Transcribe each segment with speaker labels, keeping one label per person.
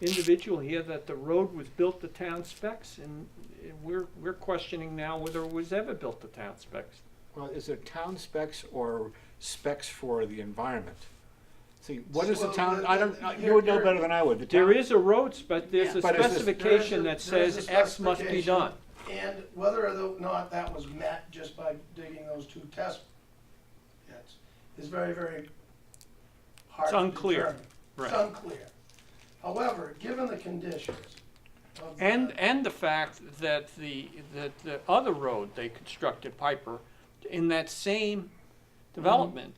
Speaker 1: individual here that the road was built to town specs, and and we're, we're questioning now whether it was ever built to town specs.
Speaker 2: Well, is it town specs or specs for the environment? See, what is the
Speaker 3: Well,
Speaker 2: town,
Speaker 3: the-
Speaker 2: I don't,
Speaker 3: the-
Speaker 2: you would know
Speaker 3: here-
Speaker 2: better than I would, the town.
Speaker 1: There is a road, but there's a
Speaker 2: Yeah. But is this-
Speaker 1: specification
Speaker 3: There
Speaker 1: that
Speaker 3: is a- there is a
Speaker 1: says X must be
Speaker 3: specification.
Speaker 1: done.
Speaker 3: And whether or not that was met just by digging those two test pits is very, very hard
Speaker 1: It's
Speaker 3: to
Speaker 1: unclear.
Speaker 3: determine. It's
Speaker 1: Right.
Speaker 3: unclear. However, given the conditions of. the-
Speaker 1: And, and the fact that the, that the other road they constructed, Piper, in that same
Speaker 3: Mm-hmm.
Speaker 1: development,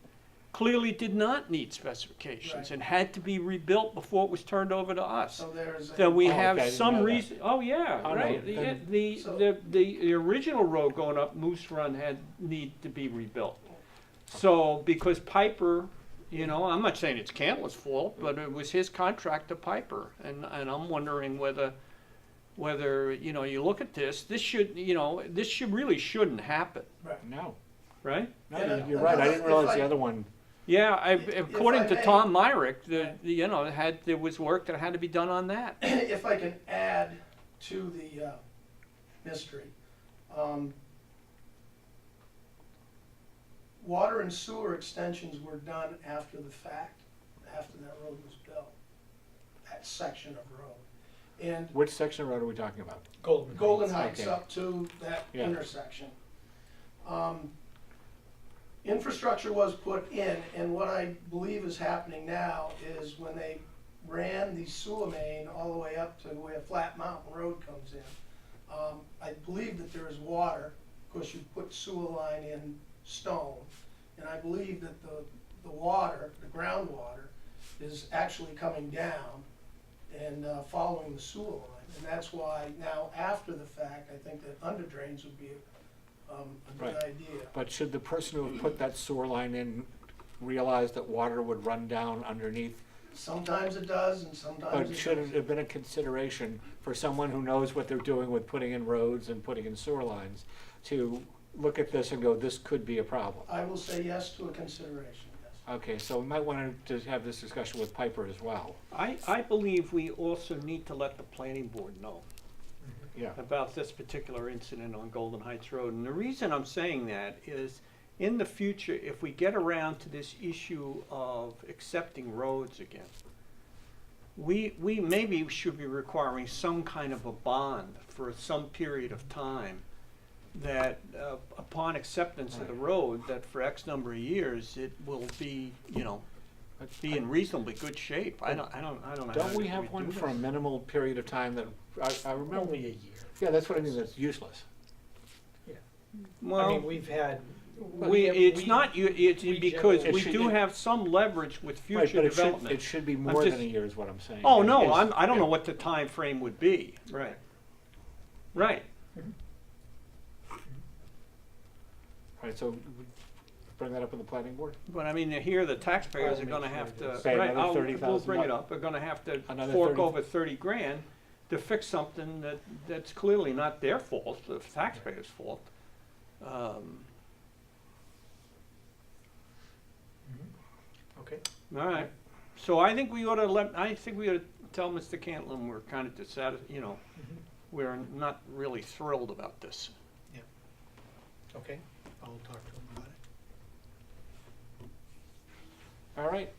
Speaker 1: clearly did not need specifications
Speaker 3: Right.
Speaker 1: and had to be rebuilt before it was turned over to us.
Speaker 3: So there's. a-
Speaker 1: That we
Speaker 2: Oh, okay, I
Speaker 1: have
Speaker 2: didn't
Speaker 1: some
Speaker 2: know that.
Speaker 1: reason, oh, yeah,
Speaker 2: Oh, no,
Speaker 1: right, the,
Speaker 2: then-
Speaker 1: the,
Speaker 3: So-
Speaker 1: the, the, the original road going up Moose Run had, need to be rebuilt. So, because Piper, you know, I'm not saying it's Cantle's fault, but it was his contract to Piper, and, and I'm wondering whether, whether, you know, you look at this, this should, you know, this should, really shouldn't happen,
Speaker 3: Right.
Speaker 2: No,
Speaker 1: right?
Speaker 2: no,
Speaker 3: Yeah,
Speaker 2: you're- you're right, I didn't
Speaker 3: if
Speaker 2: realize
Speaker 3: I-
Speaker 2: the other one,
Speaker 1: Yeah, I,
Speaker 3: If- if
Speaker 1: according
Speaker 3: I
Speaker 1: to
Speaker 3: may-
Speaker 1: Tom Myrick, the, the, you know, had, there was work that had to be done on that.
Speaker 3: If I can add to the uh, mystery, um, water and sewer extensions were done after the fact, after that road was built, that section of road. And
Speaker 2: which section of road are we talking about?
Speaker 4: Golden.
Speaker 3: Golden Heights
Speaker 2: Okay.
Speaker 3: up to that
Speaker 2: Yeah.
Speaker 3: intersection. Um, Infrastructure was put in, and what I believe is happening now is when they ran the sewer main all the way up to where Flat Mountain Road comes in, um, I believe that there is water, of course you put sewer line in stone, and I believe that the, the water, the groundwater, is actually coming down and uh, following the sewer line. And that's why now, after the fact, I think that under drains would be um, a good
Speaker 2: Right.
Speaker 3: idea.
Speaker 2: But should the person who put that sewer line in realize that water would run down underneath?
Speaker 3: Sometimes it does and sometimes
Speaker 2: But
Speaker 3: it
Speaker 2: should it
Speaker 3: doesn't.
Speaker 2: have been a consideration for someone who knows what they're doing with putting in roads and putting in sewer lines to look at this and go, this could be a problem?
Speaker 3: I will say yes to a consideration, yes.
Speaker 2: Okay, so we might want to have this discussion with Piper as well,
Speaker 1: I, I believe we also need to let the planning board know
Speaker 2: yeah.
Speaker 1: about this particular incident on Golden Heights Road. And the reason I'm saying that is in the future, if we get around to this issue of accepting roads again, we, we maybe should be requiring some kind of a bond for some period of time that uh, upon acceptance of the road, that for X number of years, it will be, you know,
Speaker 2: But
Speaker 1: be in reasonably good shape. I don't, I don't, I don't know.
Speaker 2: Don't
Speaker 1: how
Speaker 2: we
Speaker 1: do
Speaker 2: have one
Speaker 1: do
Speaker 2: for a
Speaker 1: this.
Speaker 2: minimal period of time that, I, I remember,
Speaker 4: Only a year.
Speaker 2: yeah, that's what I mean, that's useless.
Speaker 4: I mean,
Speaker 1: Well,
Speaker 4: we've had.
Speaker 1: we, it's
Speaker 4: we-
Speaker 1: not, you- it's
Speaker 4: we
Speaker 1: because
Speaker 2: generally-
Speaker 1: we
Speaker 2: It should-
Speaker 1: do
Speaker 2: it-
Speaker 1: have some leverage with
Speaker 2: Right,
Speaker 1: future
Speaker 2: but it should- It
Speaker 1: development.
Speaker 2: should be more than
Speaker 1: just-
Speaker 2: a year is what I'm saying.
Speaker 1: Oh,
Speaker 2: It is-
Speaker 1: no, I'm, I don't know
Speaker 2: yeah.
Speaker 1: what the time frame would be. Right. Right.
Speaker 2: Right, so bring that up with the planning board,
Speaker 1: But I mean, here, the taxpayers are
Speaker 4: I'll
Speaker 1: gonna
Speaker 4: make
Speaker 1: have
Speaker 4: sure
Speaker 1: to,
Speaker 4: it
Speaker 2: is.
Speaker 1: right,
Speaker 2: Another
Speaker 1: I'll, we'll
Speaker 2: $30,000
Speaker 1: bring it up, are gonna have to
Speaker 2: Another
Speaker 1: fork
Speaker 2: 30
Speaker 1: over thirty grand to fix something that, that's clearly not their fault, the taxpayers' fault. Um,
Speaker 4: Mhm. Okay.
Speaker 1: All right, so I think we ought to let, I think we ought to tell Mr. Cantlin we're kind of dissatisfied, you know, we're not really thrilled about this.
Speaker 4: Okay, I'll talk to him about it.
Speaker 2: all right.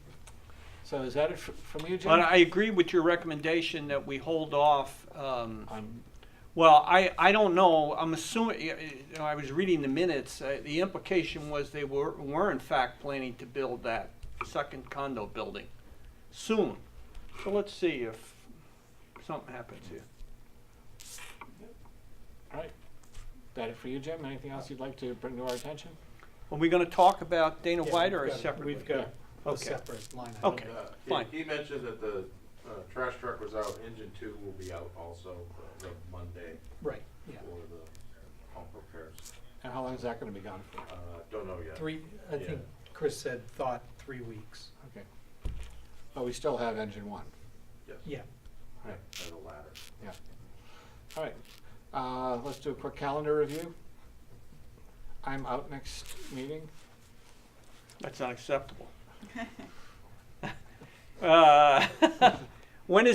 Speaker 2: So is that it fr- from you, Jim?
Speaker 1: But I agree with your recommendation that we hold off, um,
Speaker 2: I'm-
Speaker 1: well, I, I don't know, I'm assuming, you know, I was reading the minutes, uh, the implication was they were, were in fact planning to build that second condo building soon. So let's see if something happens here.
Speaker 2: all right. That it for you, Jim? Anything else you'd like to bring to our attention?
Speaker 1: Are we gonna talk about Dana
Speaker 4: Yeah,
Speaker 1: White
Speaker 4: we've
Speaker 1: or
Speaker 4: got-
Speaker 1: separately?
Speaker 4: We've got a
Speaker 1: Okay.
Speaker 4: separate line item.
Speaker 1: Okay.
Speaker 5: And, uh, he-
Speaker 1: Fine.
Speaker 5: He mentioned that the uh, trash truck was out, engine two will be out also uh, the Monday
Speaker 4: Right,
Speaker 5: for
Speaker 4: yeah.
Speaker 5: the pump repairs.
Speaker 2: And how long is that gonna be gone for?
Speaker 5: Uh, Don't know yet.
Speaker 4: Three, I think Chris said thought three weeks.
Speaker 2: Okay. But we still have engine one.
Speaker 5: Yes.
Speaker 4: Yeah.
Speaker 2: Right.
Speaker 5: And the ladder.
Speaker 2: All right, uh, let's do a quick calendar review. I'm out next meeting.
Speaker 1: That's unacceptable. Uh, When is